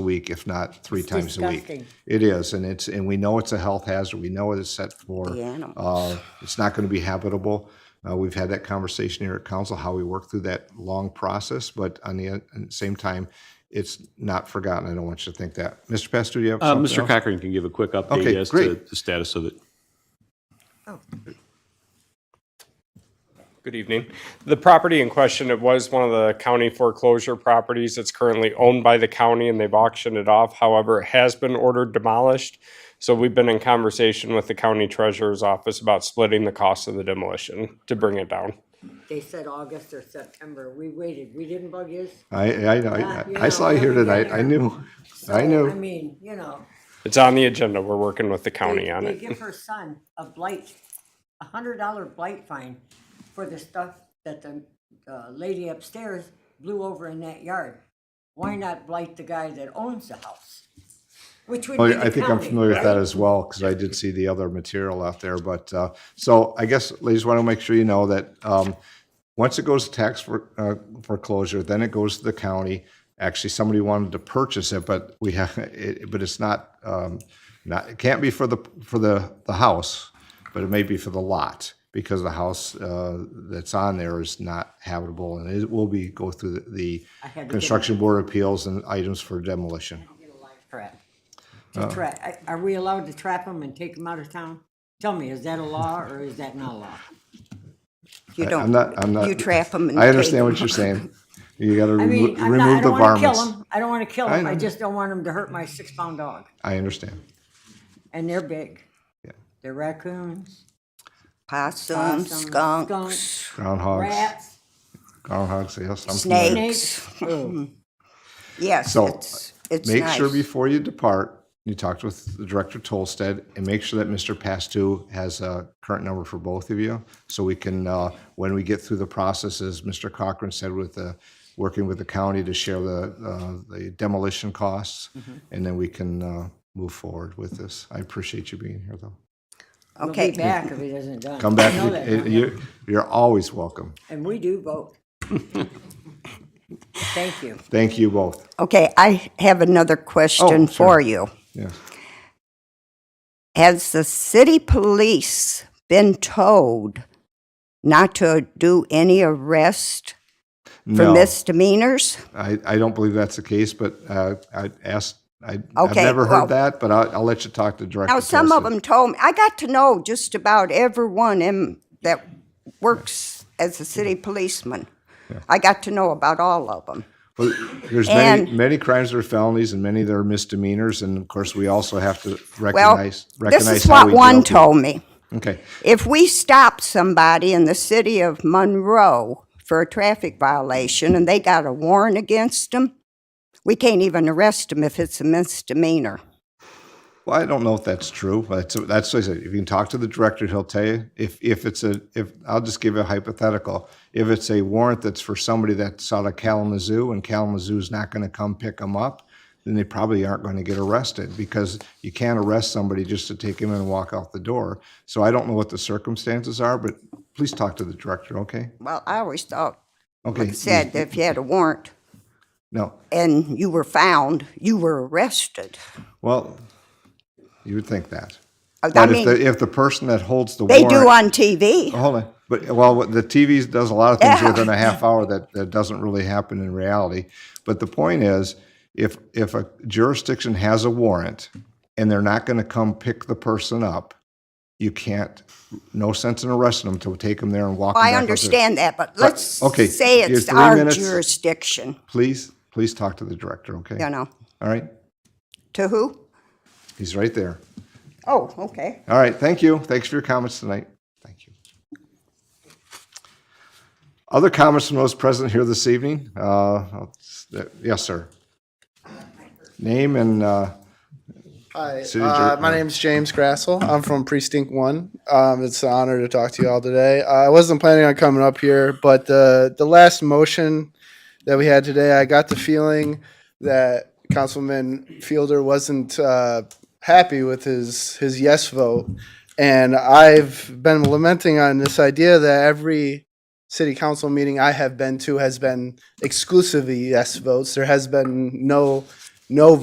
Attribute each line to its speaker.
Speaker 1: a week, if not three
Speaker 2: It's
Speaker 1: times a week.
Speaker 2: disgusting.
Speaker 1: It is, and it's, and we know it's a health hazard. We know it's set for,
Speaker 2: The animals.
Speaker 1: uh, it's not going to be habitable. Uh, we've had that conversation here at council, how we work through that long process, but on the uh, same time, it's not forgotten. I don't want you to think that. Mr. Pastor, do you have
Speaker 3: Uh,
Speaker 1: something
Speaker 3: Mr.
Speaker 1: else?
Speaker 3: Cochran can give a quick update
Speaker 1: Okay,
Speaker 3: as to
Speaker 1: great.
Speaker 3: the status of it.
Speaker 4: Good evening. The property in question, it was one of the county foreclosure properties. It's currently owned by the county and they've auctioned it off. However, it has been ordered demolished. So we've been in conversation with the county treasurer's office about splitting the cost of the demolition to bring it down.
Speaker 2: They said August or September. We waited. We didn't bug you.
Speaker 1: I, I,
Speaker 2: Yeah,
Speaker 1: I-
Speaker 2: you
Speaker 1: I saw
Speaker 2: know,
Speaker 1: you here
Speaker 2: we've been
Speaker 1: tonight. I
Speaker 2: here.
Speaker 1: knew, I
Speaker 2: I
Speaker 1: knew.
Speaker 2: mean, you know.
Speaker 4: It's on the agenda. We're working with the
Speaker 2: they-
Speaker 4: county on
Speaker 2: They
Speaker 4: it.
Speaker 2: give her son a blight, a hundred dollar blight fine for the stuff that the uh, lady upstairs blew over in that yard. Why not blight the guy that owns the house? Which would
Speaker 1: Oh,
Speaker 2: be
Speaker 1: yeah,
Speaker 2: the
Speaker 1: I think I'm
Speaker 2: county,
Speaker 1: familiar with that
Speaker 2: right?
Speaker 1: as well, because I did see the other material out there, but, uh, so I guess, ladies, want to make sure you know that, um, once it goes to tax for, uh, foreclosure, then it goes to the county. Actually, somebody wanted to purchase it, but we have, it, but it's not, um, not, it can't be for the, for the, the house, but it may be for the lot, because the house, uh, that's on there is not habitable, and it will be, go through the
Speaker 2: had to get-
Speaker 1: construction board appeals and items for demolition.
Speaker 2: Trap. To
Speaker 1: Oh.
Speaker 2: trap, I- are we allowed to trap them and take them out of town? Tell me, is that a law or is that not a law?
Speaker 5: You
Speaker 1: I'm
Speaker 5: don't,
Speaker 1: not, I'm not.
Speaker 5: you trap them and
Speaker 1: I
Speaker 5: take
Speaker 1: understand
Speaker 5: 'em.
Speaker 1: what you're saying. You gotta
Speaker 2: I
Speaker 1: remo-
Speaker 2: mean, I'm not, I
Speaker 1: remove the
Speaker 2: don't wanna kill
Speaker 1: varmints.
Speaker 2: them, I don't wanna kill
Speaker 1: I
Speaker 2: them, I
Speaker 1: know.
Speaker 2: just don't want them to hurt my six pound dog,
Speaker 1: I understand.
Speaker 2: and they're big.
Speaker 1: Yeah.
Speaker 2: They're raccoons,
Speaker 5: Possums,
Speaker 2: possums,
Speaker 5: Um, skunks,
Speaker 2: skunks,
Speaker 1: Groundhogs,
Speaker 2: rats,
Speaker 1: groundhogs, yes. I'm familiar.
Speaker 5: snakes.
Speaker 2: snakes. Oh, Ugh.
Speaker 5: Yes,
Speaker 1: So,
Speaker 5: it's, it's
Speaker 1: Make
Speaker 5: nice.
Speaker 1: sure before you depart, you talked with the Director Tolstead and make sure that Mr. Pastu has a current number for both of you. So we can, uh, when we get through the process, as Mr. Cochran said, with the, working with the county to share the, uh, the demolition costs.
Speaker 2: Mm-hmm.
Speaker 1: And then we can, uh, move forward with this. I appreciate you being here though.
Speaker 2: We'll be
Speaker 5: Okay,
Speaker 2: back if it isn't done.
Speaker 1: Come
Speaker 2: I know
Speaker 1: back.
Speaker 2: that,
Speaker 1: You, you're always welcome.
Speaker 2: And we do vote. Thank you.
Speaker 1: Thank you both.
Speaker 5: okay, I have another
Speaker 1: Oh,
Speaker 5: question for you.
Speaker 1: Yes.
Speaker 5: Has the city police been told not to do any arrest for
Speaker 1: No,
Speaker 5: misdemeanors?
Speaker 1: I, I don't believe that's the case, but uh, I asked, I, I've
Speaker 5: Okay,
Speaker 1: never heard
Speaker 5: well-
Speaker 1: that, but I'll, I'll let you talk to Director.
Speaker 5: Now, some of
Speaker 1: Tolson.
Speaker 5: them told me, I got to know just about everyone in, that works as a city policeman. I got to know about all of them.
Speaker 1: Well, There's many,
Speaker 5: and-
Speaker 1: many crimes that are felonies and many that are misdemeanors, and of course, we also have to
Speaker 5: Well,
Speaker 1: recognize, recognize
Speaker 5: this is
Speaker 1: how we
Speaker 5: what one
Speaker 1: deal people.
Speaker 5: told me.
Speaker 1: Okay,
Speaker 5: If we stopped somebody in the city of Monroe for a traffic violation and they got a warrant against them, we can't even arrest them if it's a misdemeanor.
Speaker 1: well, I don't know if that's true, but that's, that's what I said, if you can talk to the Director, he'll tell you. If, if it's a, if, I'll just give you a hypothetical. If it's a warrant that's for somebody that's out of Kalamazoo and Kalamazoo's not gonna come pick them up, then they probably aren't going to get arrested because you can't arrest somebody just to take him and walk out the door. So I don't know what the circumstances are, but please talk to the director, okay?
Speaker 5: Well, I always thought,
Speaker 1: Okay.
Speaker 5: it said that if you had a warrant
Speaker 1: No,
Speaker 5: and you were found, you were arrested.
Speaker 1: well, you would think that.
Speaker 5: I
Speaker 1: But if
Speaker 5: mean-
Speaker 1: the, if the person that holds the
Speaker 5: They
Speaker 1: warrant. Oh,
Speaker 5: do on TV.
Speaker 1: Hold on, but, well, what the TV does a lot of things
Speaker 5: Yeah.
Speaker 1: within a half hour that, that doesn't really happen in reality. But the point is, if, if a jurisdiction has a warrant and they're not gonna come pick the person up, you can't, no sense in arresting them to take them there and walk them back. out
Speaker 5: I
Speaker 1: there.
Speaker 5: understand that, but let's
Speaker 1: Uh, okay,
Speaker 5: say
Speaker 1: your
Speaker 5: it's
Speaker 1: three
Speaker 5: our
Speaker 1: minutes-
Speaker 5: jurisdiction,
Speaker 1: Please, please talk to the director, okay?
Speaker 5: you know.
Speaker 1: All right,
Speaker 5: To who?
Speaker 1: he's right there.
Speaker 5: Oh, okay.
Speaker 1: All right, thank you. Thanks for your comments tonight. Thank you. Other comments from those present here this evening? Uh, I'll- uh, Yes, sir. Name and, uh,
Speaker 6: Hi,
Speaker 1: City
Speaker 6: uh,
Speaker 1: Jer-
Speaker 6: my name's James Grassel. I'm from Precinct One. Um, it's an honor to talk to you all today. Uh, I wasn't planning on coming up here, but the the last motion that we had today, I got the feeling that Councilman Fielder wasn't uh, happy with his his yes vote, and I've been lamenting on this idea that every city council meeting I have been to has been exclusively yes votes. There has been no no